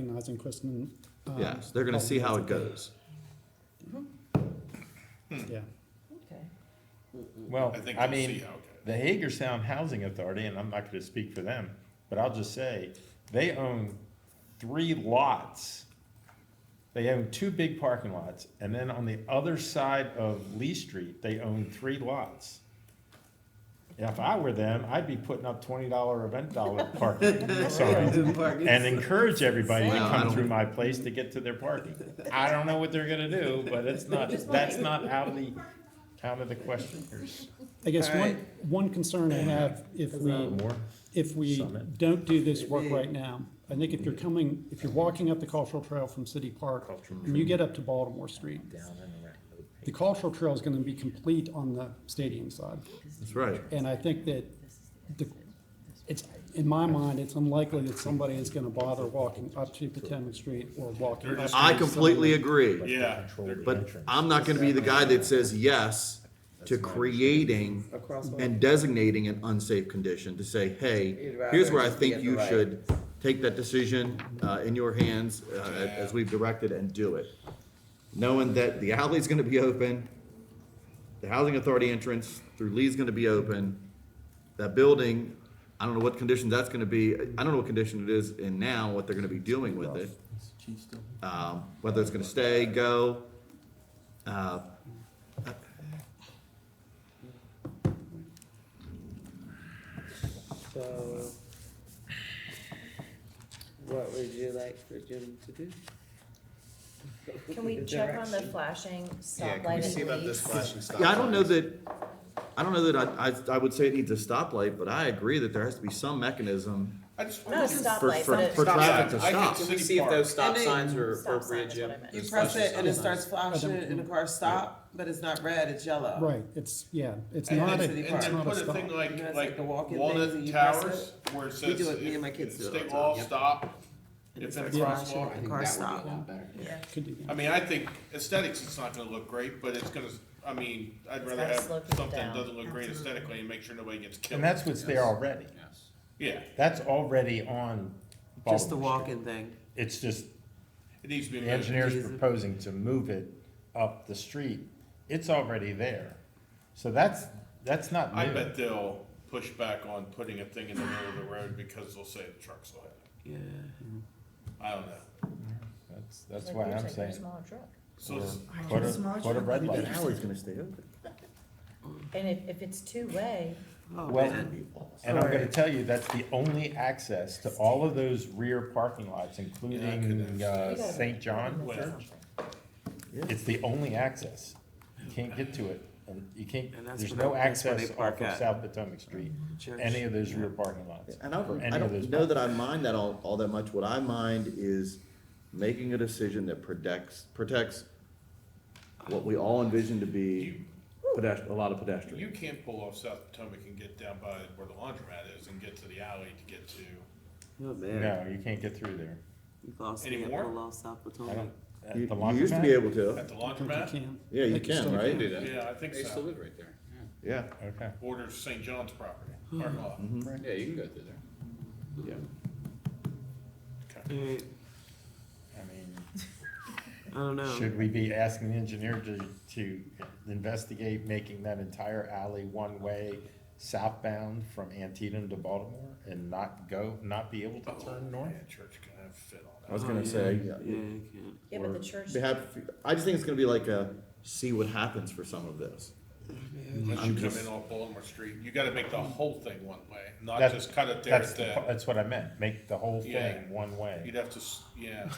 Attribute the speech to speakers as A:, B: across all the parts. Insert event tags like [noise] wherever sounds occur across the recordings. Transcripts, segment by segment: A: advertising, Kristen. um,
B: Yeah, so they're gonna see how it goes.
A: Yeah,
C: Okay.
D: Well,
E: I think
D: I
E: we'll see
D: mean,
E: how it goes.
D: the Hagerstown Housing Authority, and I'm not gonna speak for them, but I'll just say, they own three lots. They own two big parking lots, and then on the other side of Lee Street, they own three lots. If I were them, I'd be putting up twenty dollar event dollar parking sign and encourage everybody to
B: Well, I
D: come
B: don't-
D: through my place to get to their parking. I don't know what they're gonna do, but it's not, that's not out of the, out of the question here.
A: I guess one,
F: Alright.
A: one concern I have, if we,
D: More?
A: if we
D: Summit.
A: don't do this work
F: Maybe.
A: right now, I think if you're coming, if you're walking up the cultural trail from City Park, and you get up to Baltimore Street, the cultural trail is gonna be complete on the stadium side.
B: That's right.
A: And I think that the, it's, in my mind, it's unlikely that somebody is gonna bother walking up to Potomac Street or walking
E: They're
A: up.
E: just-
A: to
B: I
A: Summit.
B: completely agree,
E: Yeah,
B: but I'm not gonna be the guy that says yes to creating and designating an unsafe condition to say, hey, here's where I think you should take that decision, uh, in your hands, uh, as we've directed and do it. Knowing that the alley's gonna be open, the housing authority entrance through Lee's gonna be open. That building, I don't know what condition that's gonna be, I don't know what condition it is in now, what they're gonna be doing with it. Um, whether it's gonna stay, go, uh,
F: So, what would you like for Jim to do?
C: Can we check on the flashing
G: Yeah, can we
C: stoplight
G: see
C: at
G: about this
C: least?
G: flashing stop?
B: yeah, I don't know
G: sign?
B: that, I don't know that I, I, I would say it needs a stoplight, but I agree that there has to be some mechanism
E: I just
C: Not a
E: wonder-
B: for,
C: stoplight,
B: for,
C: but
B: for
C: a
G: Stop
B: traffic to
G: sign. I
B: stop.
G: think- Can we see if those stop
F: And they-
G: signs are
C: Stop sign,
G: appropriate,
C: that's what I
G: Jim?
C: meant.
F: You
G: Those
F: press
G: flashing
F: it and it
G: stop signs.
F: starts flashing and the car stop, but it's not red, it's yellow.
A: Right, it's, yeah, it's
E: And
A: not
E: then,
A: a,
F: then-
E: and
A: it's
E: then
A: not a
E: put a
A: stop.
E: thing
F: You know,
E: like,
F: it's like
E: like
F: the walk-in things
E: Walnut
F: that you press
E: Towers, where it
F: We
E: says.
F: do it, me
E: if-
F: and my kids do it all
E: Stay
F: the time,
E: all
F: yep.
E: stop, if in a crosswalk.
F: The car stop.
A: Could do
E: I
A: that.
E: mean, I think aesthetics, it's not gonna look great, but it's gonna, I mean, I'd rather
C: gotta
E: have
C: slow people
E: something that
C: down.
E: doesn't look great aesthetically and make sure nobody gets killed.
D: And that's what's there already.
E: Yeah,
D: That's already on
F: Just the
D: Baltimore Street.
F: walking thing.
D: It's just
E: it needs to be.
D: the
E: moved.
D: engineer's
F: Easy.
D: proposing to move it up the street. It's already there. So that's, that's not
E: I
D: new.
E: bet they'll push back on putting a thing in the middle of the road because they'll say the trucks will hit it.
F: Yeah.
E: I don't know.
D: That's, that's
C: Like,
D: why
C: there's
D: I'm
C: like a
D: saying.
C: smaller truck.
E: So it's-
D: Put a, put a red light.
B: The alley's gonna stay open.
C: And if, if it's two-way,
F: Oh,
D: Well,
F: man.
D: and I'm gonna
F: Sorry.
D: tell you, that's the only access to all of those rear parking lots, including, uh,
C: You gotta-
D: St. John
C: that's
D: Church.
C: something.
D: It's the only access. You can't get to it. And you can't,
F: And that's
D: there's
F: where they-
D: no
F: that's where they
D: access
F: park
D: off of
F: at. Mm,
D: South Potomac Street,
F: Church.
D: any of those rear parking lots.
B: And I don't,
D: Any
B: I
D: of
B: don't
D: those
B: know that I mind that all, all that much. What I mind is making a decision that protects, protects what we all envision to be pedestrian, a lot of pedestrians.
E: You can't pull off South Potomac and get down by where the laundromat is and get to the alley to get to,
F: Oh, man.
D: No, you can't get through there.
F: You lost
E: Any
F: me at
E: more?
F: Palo South
D: I don't,
F: Potomac.
D: at
B: You,
D: the
B: you used to be
D: laundromat?
B: able to.
E: at the
A: I think you
E: laundromat?
A: can.
B: Yeah, you
A: They can
B: can,
A: still
B: right?
G: Do that.
E: Yeah, I think
G: They used to
E: so.
G: live right there. yeah.
B: Yeah,
D: Okay.
E: Borders St. John's property, parking lot.
D: Mm-hmm.
G: Yeah, you can go through there.
B: yeah.
E: Okay.
F: Alright,
D: I mean,
F: I don't know.
D: should we be asking the engineer to, to investigate making that entire alley one-way southbound from Antietam to Baltimore and not go, not be
E: Oh.
D: able to turn north?
E: Yeah, church can have fit on
B: I
E: that.
B: was
F: Oh,
B: gonna
F: yeah.
B: say,
F: Yeah,
B: yeah.
F: you can't.
C: yeah, but the church,
B: They have, I just think it's gonna be like a, see what happens for some of this.
E: Unless
B: I'm
E: you come
B: just-
E: in off Baltimore Street, you gotta make the whole thing one way, not
D: That-
E: just cut it there
D: That's,
E: at
D: the
E: the-
D: part- that's what I meant, make the whole
E: Yeah.
D: thing one-way,
E: You'd have to, s-
D: [laughs]
E: yeah.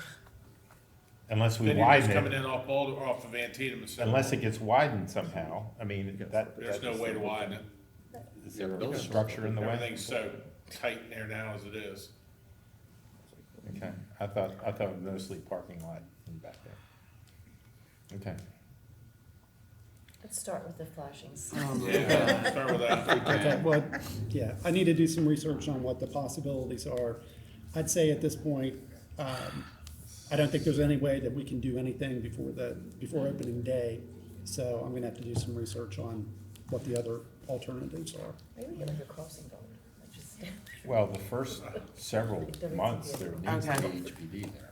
D: unless we
E: Then you're just
D: widen
E: coming
D: it,
E: in off Baltimore, off of Antietam instead.
D: unless it gets widened somehow, I mean, that.
E: There's no way to widen it.
D: Is there a structure in the way?
E: Everything's so tight in there now as it is.
D: [laughs] Okay, I thought, I thought mostly parking lot in back there. Okay.
C: let's start with the flashing. sign.
F: Oh, my God.
E: Yeah, start with that.
A: Okay, well, yeah, I need to do some research on what the possibilities are. I'd say at this point, um, I don't think there's any way that we can do anything before the, before opening day. So I'm gonna have to do some research on what the other alternatives are.
C: Maybe we get like a crossing guard, like just.
D: Well, the first several months, there needs to
F: Okay.
D: be HPD there.